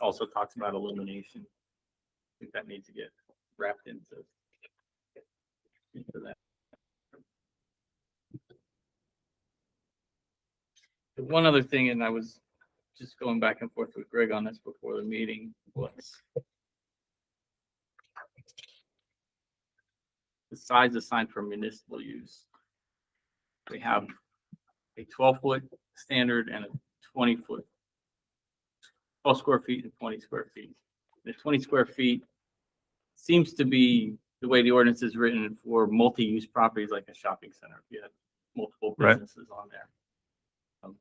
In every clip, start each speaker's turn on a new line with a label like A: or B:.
A: also talks about illumination. I think that needs to get wrapped into. Into that.
B: One other thing, and I was just going back and forth with Greg on this before the meeting, was the size assigned for municipal use. We have a twelve foot standard and a twenty foot. Twelve square feet and twenty square feet. The twenty square feet seems to be the way the ordinance is written for multi-use properties like a shopping center. If you have multiple
C: Right.
B: businesses on there. Um,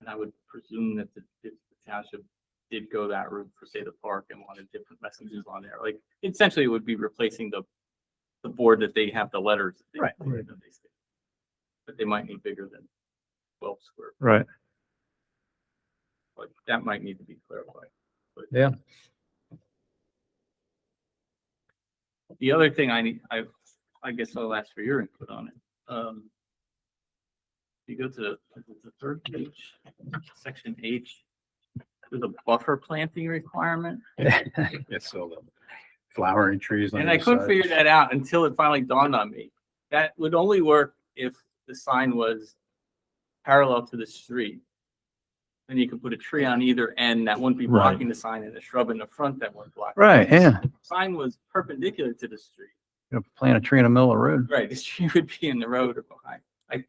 B: And I would presume that the if the township did go that route for say the park and wanted different messages on there. Like essentially it would be replacing the the board that they have the letters. that they-
A: Right.
B: that they say. But they might need bigger than twelve square,
C: Right.
B: like that might need to be clarified. but-
C: Yeah.
B: The other thing I need, I, I guess I'll ask for your input on it. Um. You go to the- the third page, section H, there's a buffer planting requirement.
D: It's so the flowering trees. on
B: And I
D: either
B: couldn't
D: side.
B: figure that out until it finally dawned on me. That would only work if the sign was parallel to the street. Then you could put a tree on either end that wouldn't be
C: Right.
B: blocking the sign and a shrub in the front that wouldn't block. it.
C: Right, yeah.
B: Sign was perpendicular to the street.
C: You know, Plant a tree in the middle of the road.
B: Right, the tree would be in the road or behind. I,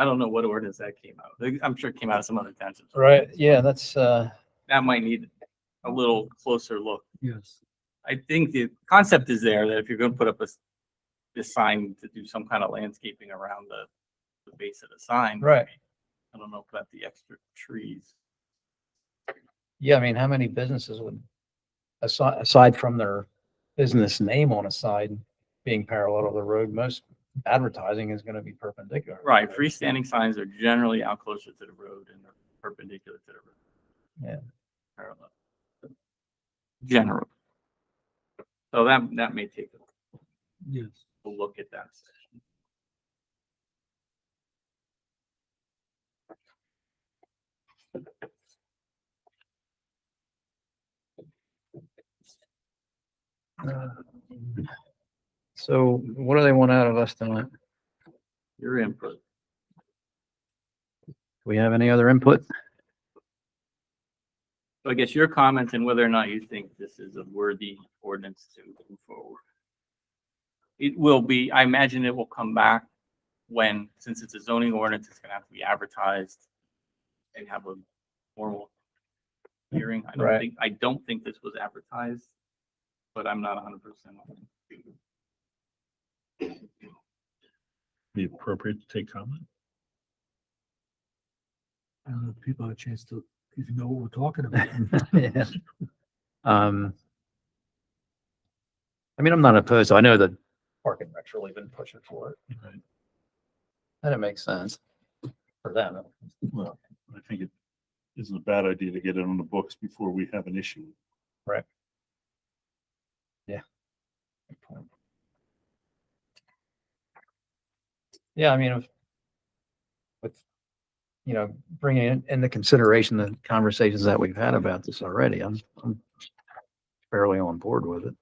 B: I don't know what ordinance that came out. of. I'm sure it came out of some other townships.
C: Right, yeah, that's, uh.
B: That might need a little closer look.
C: Yes.
B: I think the concept is there that if you're gonna put up a, s- this sign to do some kind of landscaping around the, the base of the sign.
C: Right.
B: I don't know about the extra trees.
C: Yeah, I mean, how many businesses would, aside, aside from their business name on a side being parallel to the road, most advertising is gonna be perpendicular.
B: Right, freestanding signs are generally out closer to the road and they're perpendicular to the road.
C: Yeah.
B: Parallel. General. So that, that may take a
C: Yes.
B: a look at that. section.
C: So what do they want out of us tonight? Do
B: Your input.
C: we have any other input?
B: So I guess your comments and whether or not you think this is a worthy ordinance to move forward. It will be, I imagine it will come back when, since it's a zoning ordinance, it's gonna have to be advertised and have a formal hearing. I don't
C: Right.
B: think, I don't think this was advertised, but I'm not hundred percent.
D: Be appropriate to take comment?
E: I don't know if people have a chance to even know what we're talking about.
C: Yeah. Um. I mean, I'm not opposed. I know that. Park and Rec's really been pushing for it.
D: Right.
C: And it makes sense for them.
D: Well, I think it isn't a bad idea to get it on the books before we have an issue.
C: Yeah, I mean, if- with, you know, bringing in, into consideration the conversations that we've had about this already, I'm, I'm fairly on board with it.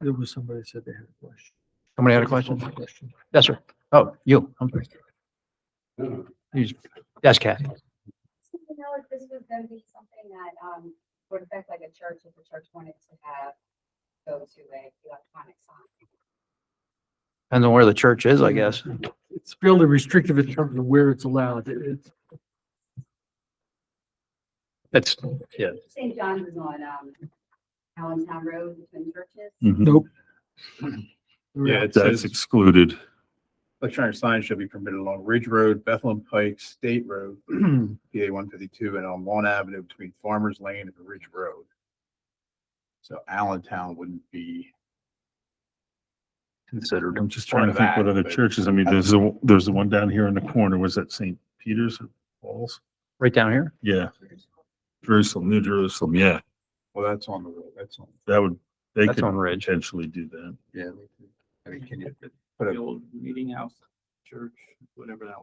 E: There was somebody that said they had a question.
C: Somebody had a question? Yes, sir. Oh, you. I'm sorry. You just- Yes, Kathy.
F: So, You know, if this was gonna be something that, um, would affect like a church, if the church wanted to have, go to a electronic sign.
C: Depends on where the church is, I guess.
E: It's fairly restrictive in terms of where it's allowed. It- It's,
C: That's, yeah.
F: St. John's is on, um, Allentown Road between churches.
C: Mm-hmm.
E: nope.
D: That's excluded.
G: Electronic signs shall be permitted along Ridge Road, Bethlehem Pike, State Road, PA one fifty-two, and on Lawn Avenue between Farmers Lane and Ridge Road. So Allentown wouldn't be.
C: Considered.
D: I'm just trying to
G: Part of
D: think what
G: that,
D: other
G: but-
D: churches, I mean, there's, the- there's the one down here in the corner, was that St. Peter's or Paul's?
C: Right down here?
D: Yeah, Jerusalem, New Jerusalem, yeah,
G: Well, that's on the road, that's on,
D: that would, they
C: That's
D: could
C: on Ridge.
D: potentially do that.
G: yeah. I mean, can you
B: The old meeting house, church, whatever that